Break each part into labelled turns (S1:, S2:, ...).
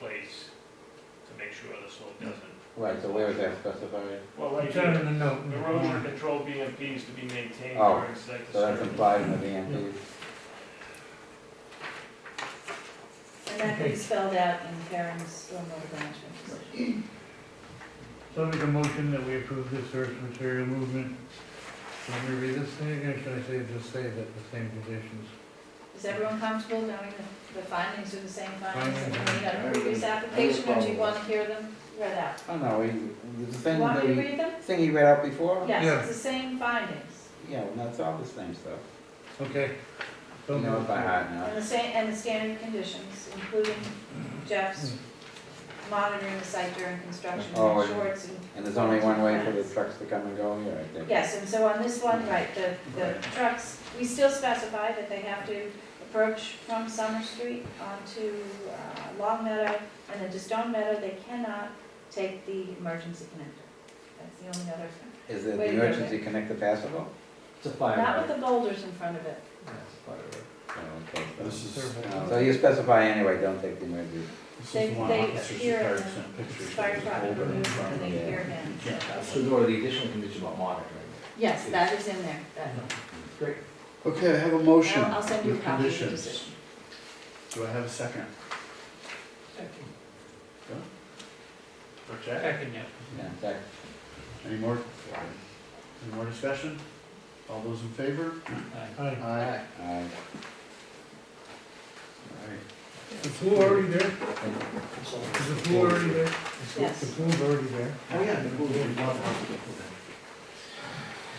S1: place to make sure the slope doesn't.
S2: Right, so where is that specified?
S1: Well,
S3: It's
S1: right
S3: not
S1: here,
S3: in the note. in the
S1: erosion
S3: warrant.
S1: control BMPs to be maintained
S2: Oh,
S1: during site
S2: So that's
S1: disturbance.
S2: implied in the VMP.
S4: And that
S3: Okay.
S4: is spelled out in Karen's stormwater management decision.
S3: So I'll make a motion that we approve this earth material movement. Let me read this thing again, should I say, just say that the same conditions?
S4: Is everyone comfortable knowing that the findings are the same findings that we made on
S5: Findings.
S4: the previous application, or do you want to hear them read out?
S2: Oh, no, we, the
S4: You
S2: thing
S4: want
S2: that
S4: me to
S2: we,
S4: read them?
S2: thing you read out before?
S4: Yes,
S3: Yeah.
S4: it's the same findings,
S2: Yeah, well, that's all the same stuff.
S3: Okay.
S2: You know it by heart now.
S4: and the same, and the standard conditions, including Jeff's monitoring the site during construction,
S2: Oh,
S4: and
S2: and-
S4: shorts and
S2: And there's only one way for the trucks to come and go here, I think.
S4: Yes, and so on this one, right, the, the trucks, we still specify that they have to approach from Summer Street onto uh, Long Meadow and then to Stone Meadow, they cannot take the emergency connector. That's the only other,
S2: Is
S4: Wait
S2: it the
S4: a minute.
S2: emergency connector passable?
S6: It's a fire.
S4: not with the boulders in front of it.
S6: Yeah, it's a fire.
S2: Oh, okay. so-
S5: This is, uh,
S2: oh, So you specify anyway, don't take the emergency.
S5: this
S4: They-
S5: is one
S4: they
S5: officer
S4: appear in
S5: retired
S4: the
S5: sent pictures of
S4: Fire
S5: his
S4: department
S5: folder in
S4: removes them
S5: front
S4: and
S5: of
S4: they
S5: him.
S4: hear him.
S5: You can't pass
S6: So
S5: it.
S6: Dora, the additional condition about monitoring.
S4: Yes, that is in there. that-
S6: Great.
S5: Okay, I have a motion
S4: I'll I'll send you a
S5: with
S4: copy of the
S5: conditions.
S4: decision.
S5: Do I have a second?
S1: Protect.
S2: Yeah, that,
S5: Any more, any more discussion? All those in favor?
S3: Hi,
S5: Aye.
S2: uh,
S5: Alright,
S3: the pool already there? Is the pool already there?
S4: Yes.
S3: The pool's already there.
S5: oh yeah, the pool, we bought it.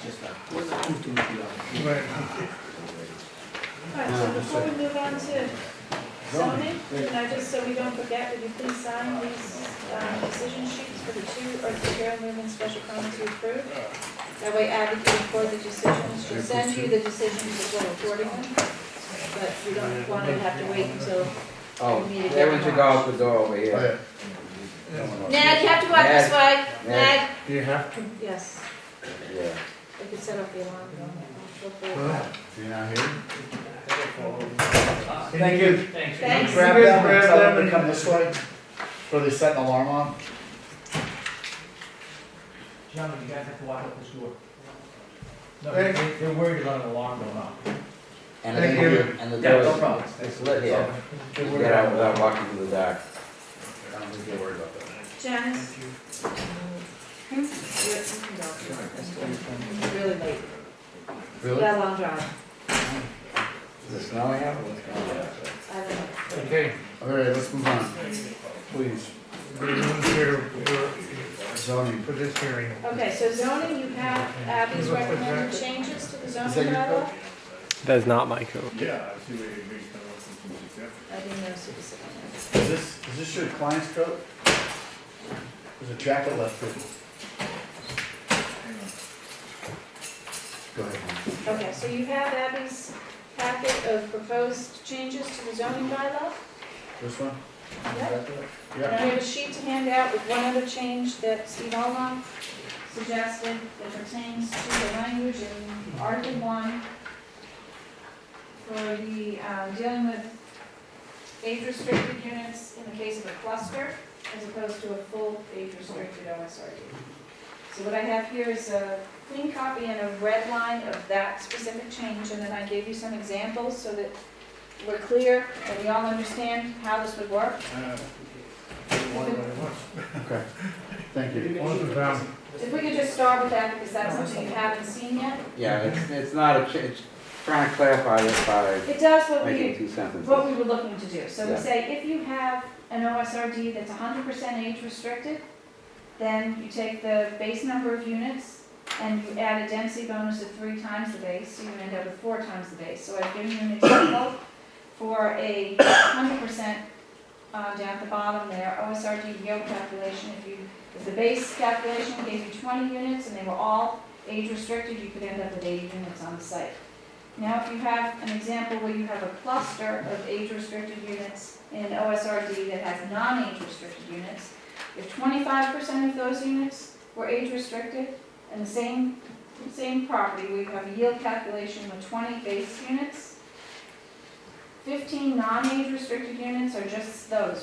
S6: Just that. Where's the two, two, three,
S3: Right.
S4: All right, so before we move on to zoning, can I just, so we don't forget, would you please sign these um, decision sheets for the two earth material movement special permits you approved? That way Abby can record the decisions, she'll send you the decisions as well recording them, but you don't want to have to wait until,
S2: Oh,
S4: We need to get
S2: everyone should go
S4: them.
S2: out the door over
S5: Oh,
S2: here.
S5: yeah.
S4: Ned, you have to walk this way, Ned.
S3: Do you have to?
S4: Yes,
S2: Yeah.
S4: they could set off the alarm. you know, and I'll
S3: Well,
S4: go for it.
S5: Do you not hear?
S3: Thank you.
S4: Thanks.
S5: Grab
S3: You guys
S5: them and
S3: grab
S5: tell them
S3: them
S5: to come
S3: and-
S5: this way, or they set an alarm on.
S6: Gentlemen, you guys have to walk up this door. No,
S3: Thank
S6: they- they're worried about an alarm going off.
S2: And the-
S3: Thank you.
S2: And the
S6: Yeah, no
S2: door
S6: problem.
S2: is lit here.
S5: Don't
S2: You
S5: worry
S2: get out
S5: about
S2: without walking through the dark.
S5: that. I don't think they worry about that.
S4: Janice? Hmm? You're- you can go. It's Really late,
S5: Really?
S4: that long drive,
S2: Is it snowing out or what's going on?
S4: I don't know.
S3: Okay.
S5: Alright, let's move on. Please,
S3: The room's here for-
S5: zoning.
S3: for this hearing.
S4: Okay, so zoning, you have Abby's recommended changes to the
S5: Is that
S4: zoning
S5: your
S4: bylaw?
S7: That is not my code.
S1: Yeah, I see where you're being kind of suggested.
S4: I didn't know specifically.
S5: Is this, is this your client's coat? There's a jacket left here. Go ahead.
S4: Okay, so you have Abby's packet of proposed changes to the zoning bylaw?
S5: This one?
S4: Yep. And I
S5: Yeah.
S4: have a sheet to hand out with one other change that Steve Almond suggested that pertains to the language in Article One for the, um, dealing with age restricted units in the case of a cluster as opposed to a full age restricted OSRD. So what I have here is a clean copy and a red line of that specific change, and then I gave you some examples so that we're clear and we all understand how this would work.
S5: Okay, thank you.
S3: Once we found-
S4: If we could just start with that, because that's something you haven't seen yet.
S2: Yeah, it's, it's not a, ch- it's trying to clarify this by
S4: It does what
S2: making
S4: we,
S2: two
S4: what
S2: sentences.
S4: we were looking to do. So we
S2: Yeah.
S4: say, if you have an OSRD that's hundred percent age restricted, then you take the base number of units and you add a density bonus of three times the base, so you end up with four times the base. So I've given you an example for a hundred percent, uh, down at the bottom there, OSRD yield calculation. If you, if the base calculation gave you twenty units and they were all age restricted, you could end up with eighty units on the site. Now, if you have an example where you have a cluster of age-restricted units in OSRD that has non-age-restricted units, if twenty-five percent of those units were age-restricted, and the same, same property, we have a yield calculation with twenty base units, fifteen non-age-restricted units are just those,